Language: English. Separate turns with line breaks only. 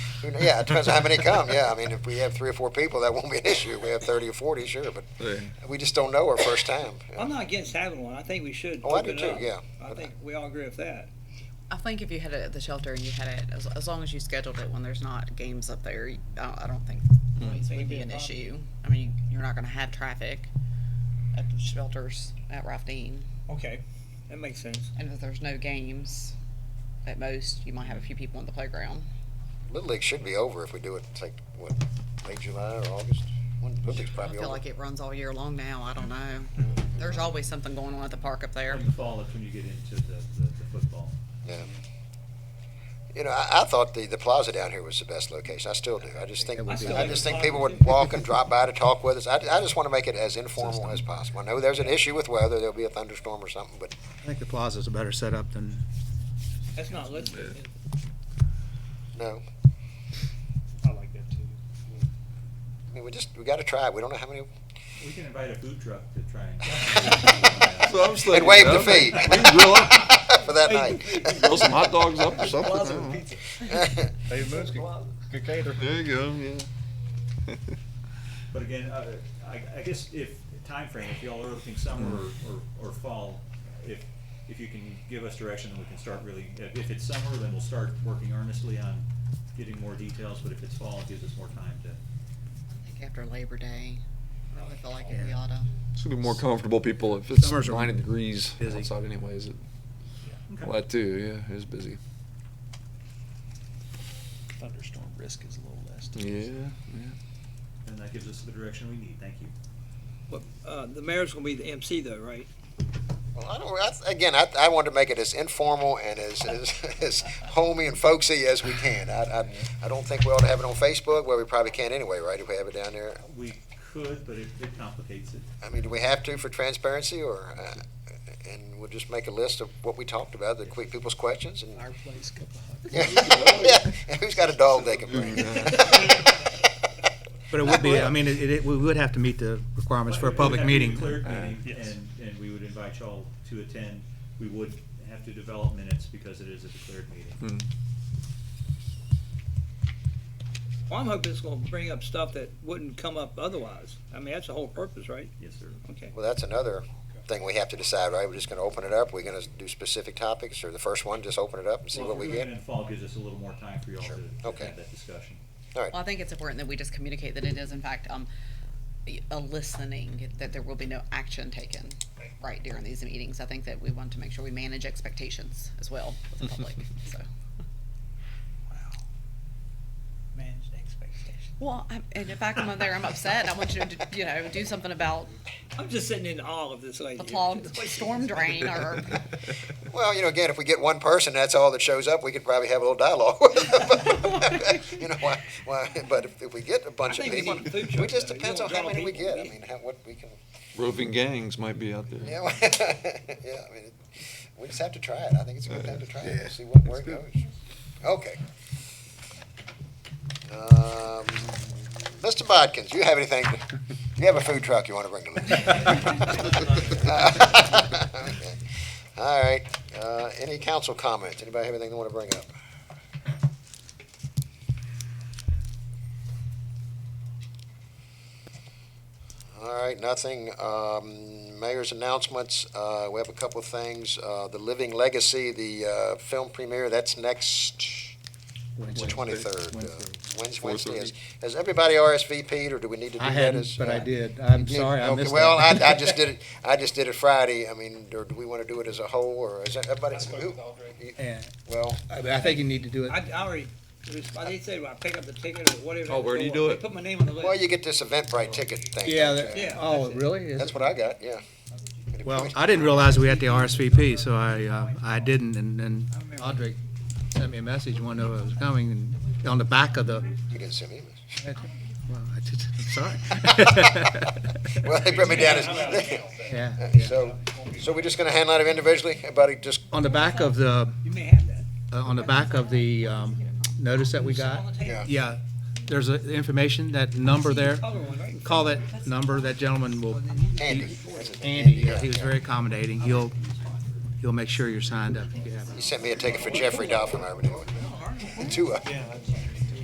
Who kn- Yeah, it depends on how many come. Yeah, I mean, if we have three or four people, that won't be an issue. If we have 30 or 40, sure, but
Yeah.
we just don't know our first time.
I'm not against having one. I think we should
Oh, I do
open it
too,
up.
yeah.
I think we all agree with that.
I think if you had it at the shelter and you had it, as, as long as you scheduled it when there's not games up there, you- I, I don't think noise
Think it'd
would
be
be
a
an
problem.
issue. I mean, you're not going to have traffic at the shelters at Ralph Dean.
Okay, that makes sense.
And if there's no games, at most, you might have a few people on the playground.
Little League should be over if we do it, it's like, what, late July or August? When- Little League's
I
probably
feel
over.
like it runs all year long now. I don't know. There's always something going on at the park up there.
In the fall, that's when you get into the, the, the football.
Yeah. You know, I, I thought the, the plaza down here was the best location. I still do. I just think
I still
I
like
just
the
think
plaza,
people would
too.
walk and drop by to talk with us. I, I just want to make it as informal as possible. I know there's an issue with weather. There'll be a thunderstorm or something, but
I think the plaza's a better setup than,
That's not listed.
no.
I like that too.
I mean, we just we got to try it. We don't know how many.
We can invite a food truck to try and.
So I'm just
And
thinking,
waive the
you know,
fee
We can grill, up-
for that night.
grill some hot dogs up or something. I
Mm-hmm.
don't know.
Dave Moons could, could cater.
There you go. Yeah.
But again, uh, I, I guess if, time frame, if y'all are looking summer or, or, or fall, if, if you can give us direction, then we can start really, if, if it's summer, then we'll start working earnestly on getting more details, but if it's fall, it gives us more time to.
I think after Labor Day, I really feel like it ought to.
It's gonna be more comfortable people if it's
Summers are
90 degrees
busy.
outside, anyways. It,
Okay.
Well, that too. Yeah, it's busy.
Thunderstorm risk is a little less. too.
Yeah. yeah.
And that gives us the direction we need, thank you.
But, uh, the mayor's gonna be the MC though, right?
Well, I don't, I, again, I, I wanted to make it as informal and as, as, as homey and folksy as we can. I, I, I don't think we ought to have it on Facebook, well, we probably can't anyway, right, if we have it down there?
We could, but it, it complicates it.
I mean, do we have to for transparency, or, uh, and we'll just make a list of what we talked about, the quick people's questions, and,
Our place, cup of hot.
yeah, and who's got a dog they can bring?
but it would be, I mean, it, it, we would have to meet the requirements for a
But it
public
would have to be
meeting.
cleared
Uh,
meeting,
yes.
And, and we would invite y'all to attend. We would have to develop minutes because it is a declared meeting.
Mm.
Well, I'm hoping it's gonna bring up stuff that wouldn't come up otherwise. I mean, that's the whole purpose, right?
Yes, sir.
Okay.
Well, that's another thing we have to decide, right, we're just gonna open it up, we're gonna do specific topics, or the first one, just open it up and see
Well,
what
if
we
we're
get?
looking at Fall gives us a little more time for y'all
Sure.
to to
Okay.
have that discussion.
Well, I think it's important that we just communicate that it is in fact, um, a listening, that there will be no action taken right during these meetings. I think that we want to make sure we manage expectations as well with the public, so.
Managed expectations.
Well, I'm, and if I come up there, I'm upset, I want you to, you know, do something about
I'm just sitting in awe of this lady.
the clogged storm drain or,
Well, you know, again, if we get one person, that's all that shows up, we could probably have a little dialogue with them. You know, why, why, but if, if we get a bunch
I
of
think we
people,
need a food
it
truck,
just
though. You
depends on
don't
how
draw
many we
people.
get, I mean, how, what we can,
Roving gangs might be out there.
you know, yeah, I mean, it- we just have to try it, I think it's a good time to try it,
Yeah,
We'll see what, where it
it's
goes. Okay. Um, Mr. Bodkins, you have anything, you have a food truck you wanna bring to me? All right, uh, any council comments, anybody have anything they wanna bring up? All right, nothing. Um, Mayor's announcements, uh, we have a couple of things. Uh, The Living Legacy, the uh, film premiere, that's next, it's the 23rd. uh, Wednesday, Wednesday. is- Has everybody RSVP'd, or do we need to do that?
I hadn't,
as-
but I
uh,
did. I'm
you
sorry, I
okay,
missed
Well, I,
that.
I just did it, I just did it Friday. I mean, or do we want to do it as a whole, or is that- everybody?
I spoke
who-
with Audrey.
And
Well,
I I think you need to do it.
I, I already, I did say, I pick up the ticket or whatever.
Oh, where do you
They
do it?
Put my name on the list.
well, you get this Eventbrite ticket thing. don't
Yeah,
you?
that-
Yeah,
oh,
that's it.
really? Is
That's
it?
what I got, yeah.
Well, I didn't realize we had the RSVP, so I, uh, I didn't, and then Audrey sent me a message, wanted to know it was coming, and on the back of the,
You didn't send me. this.
well, I just, I'm sorry.
Well, they put me down as,
Yeah,
So, so we're just gonna handle it individually? Everybody just,
on the back of the,
You may have that.
uh, on the back of the, um, notice that we got,
On the table.
yeah.
yeah, there's a information, that number there,
Other one, right?
call that number, that gentleman will,
Andy. that's it,
Andy, yeah, he was very accommodating, he'll, he'll make sure you're signed up if you have
He sent me a ticket for Jeffrey Dolphin, I remember. Two of them.
Yeah, that's-